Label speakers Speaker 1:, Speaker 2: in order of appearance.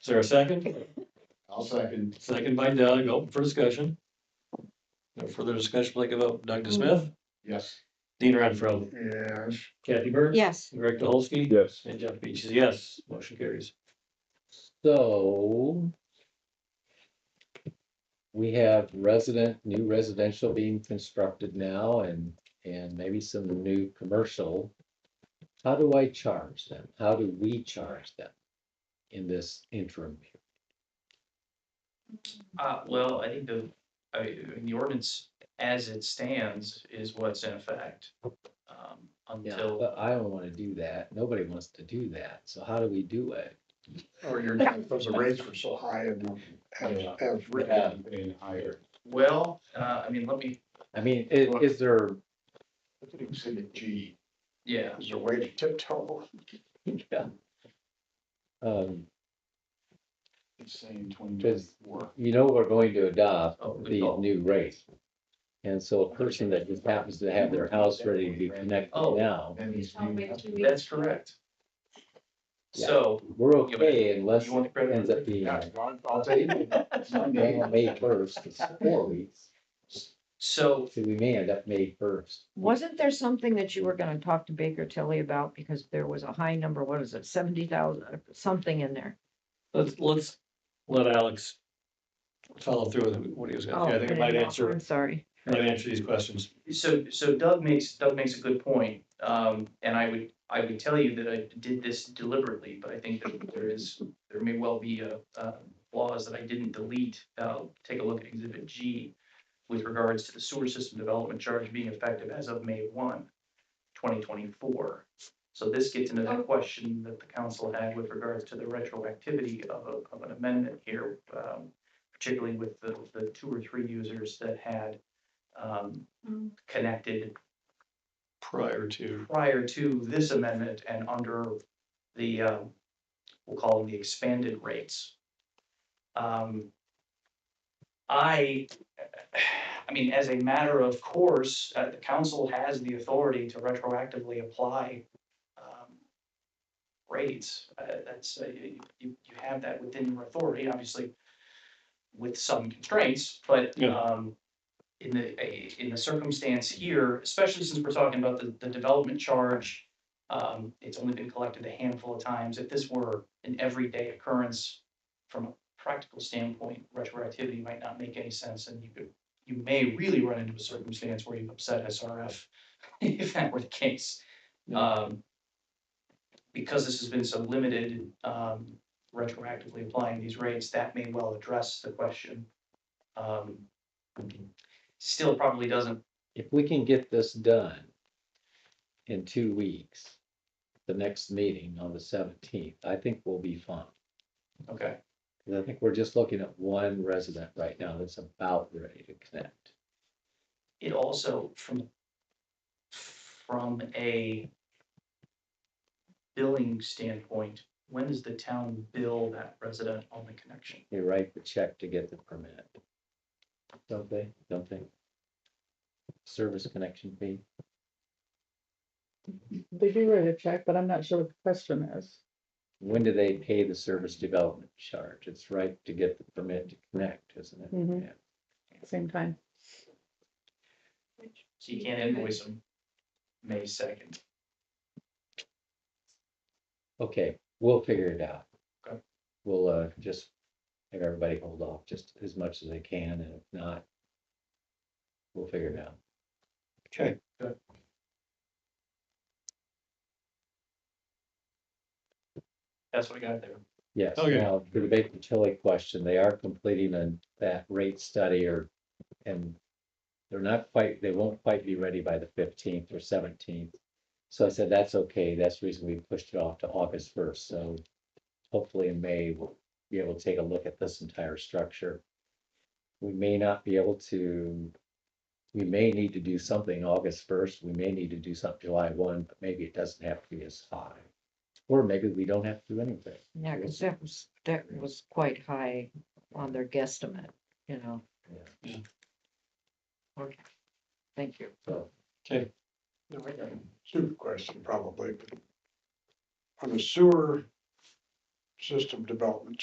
Speaker 1: Is there a second?
Speaker 2: I'll second.
Speaker 1: Second by Doug, open for discussion. No further discussion, like about Doug DeSmith,
Speaker 2: Yes.
Speaker 1: Dean Renfro,
Speaker 2: Yes.
Speaker 1: Kathy Burke.
Speaker 3: Yes,
Speaker 1: Greg Dolsky.
Speaker 4: Yes.
Speaker 1: And Jeff Beach is yes, motion carries.
Speaker 5: So we have resident, new residential being constructed now and, and maybe some new commercial. How do I charge them? How do we charge them in this interim? period?
Speaker 6: Uh, well, I think the, I mean, the ordinance as it stands is what's in effect. Um, until,
Speaker 5: But I don't want to do that. Nobody wants to do that. So how do we do it?
Speaker 2: Or Oh, your, because the rates were so high and as,
Speaker 4: Yeah.
Speaker 2: as
Speaker 4: Yeah,
Speaker 1: Um,
Speaker 2: written.
Speaker 4: being higher.
Speaker 6: well, uh, I mean, let me,
Speaker 5: I mean, i-
Speaker 2: Well-
Speaker 5: is there,
Speaker 2: Exhibit G,
Speaker 6: yeah,
Speaker 2: is there a way to tiptoe?
Speaker 5: yeah. Um,
Speaker 2: It's saying
Speaker 5: Just-
Speaker 2: 2024.
Speaker 5: you know, we're going to adopt
Speaker 6: Oh, good
Speaker 5: the
Speaker 6: call.
Speaker 5: new rate. And so a person that just happens to have their house ready to be connected
Speaker 6: Oh.
Speaker 5: now,
Speaker 2: And it's
Speaker 3: I'll wait two weeks.
Speaker 6: that's correct.
Speaker 5: Yeah.
Speaker 6: So,
Speaker 5: we're
Speaker 6: Yeah, but
Speaker 5: okay unless
Speaker 6: you want the
Speaker 5: it
Speaker 6: credit?
Speaker 5: ends up being
Speaker 2: Yeah, I'll- I'll take
Speaker 5: May
Speaker 2: it.
Speaker 5: May first, it's four weeks,
Speaker 6: so
Speaker 5: so we may end up May first.
Speaker 3: wasn't there something that you were gonna talk to Baker Tilly about, because there was a high number, what is it, seventy thousand, uh, something in there?
Speaker 1: Let's, let's let Alex follow through with what he was
Speaker 3: Oh,
Speaker 1: gonna, I think it might answer,
Speaker 3: I'm sorry,
Speaker 1: might answer these questions.
Speaker 6: So, so Doug makes, Doug makes a good point, um, and I would, I would tell you that I did this deliberately, but I think that there is, there may well be a, uh, laws that I didn't delete. Uh, take a look at exhibit G with regards to the sewer system development charge being effective as of May 1, 2024. So this gets into the question that the council had with regards to the retroactivity of, a- of an amendment here, um, particularly with the, the two or three users that had, um, connected
Speaker 1: Prior to,
Speaker 6: prior to this amendment and under the, um, we'll call them the expanded rates. Um, I, I mean, as a matter of course, uh, the council has the authority to retroactively apply um, rates. Uh, That's, uh, you, you you have that within your authority, obviously with some constraints, but
Speaker 1: Yeah.
Speaker 6: um, in the, eh, in the circumstance here, especially since we're talking about the, the development charge, um, it's only been collected a handful of times. If this were an everyday occurrence, from a practical standpoint, retroactivity might not make any sense and you could, you may really run into a circumstance where you've upset SRF if that were the case. Um, because this has been so limited, um, retroactively applying these rates, that may well address the question. Um, still probably doesn't
Speaker 5: If we can get this done in two weeks, the next meeting on the seventeenth, I think we'll be fine.
Speaker 6: Okay,
Speaker 5: 'Cause I think we're just looking at one resident right now that's about ready to connect.
Speaker 6: it also from, from a billing standpoint, when does the town bill that resident on the connection?
Speaker 5: They write the check to get the permit. Don't they? Don't they? Service connection fee.
Speaker 7: They do write a check, but I'm not sure what the question is.
Speaker 5: When do they pay the service development charge? It's right to get the permit to connect, isn't it?
Speaker 7: Mhm.
Speaker 5: Yeah.
Speaker 7: at the Same time.
Speaker 6: So you can't invoice them May second.
Speaker 5: Okay, we'll figure it out.
Speaker 6: Okay.
Speaker 5: We'll uh just have everybody hold off just as much as they can, and if not, we'll figure it out.
Speaker 1: okay,
Speaker 6: That's what I got there.
Speaker 5: Yes,
Speaker 1: Okay.
Speaker 5: now, for the Baker Tilly question, they are completing a, that rate study or, and they're not quite, they won't quite be ready by the fifteenth or seventeenth. So I said, that's okay, that's the reason we pushed it off to August first, so hopefully in May, we'll be able to take a look at this entire structure. We may not be able to, we may need to do something August first, we may need to do something July one, but maybe it doesn't have to be as high. Or maybe we don't have to do anything.
Speaker 3: yeah, cause that was, that was quite high on their guesstimate, you know?
Speaker 5: Yeah.
Speaker 1: Yeah.
Speaker 3: Okay, thank you.
Speaker 5: So
Speaker 2: No, I got a stupid question probably. but On the sewer system development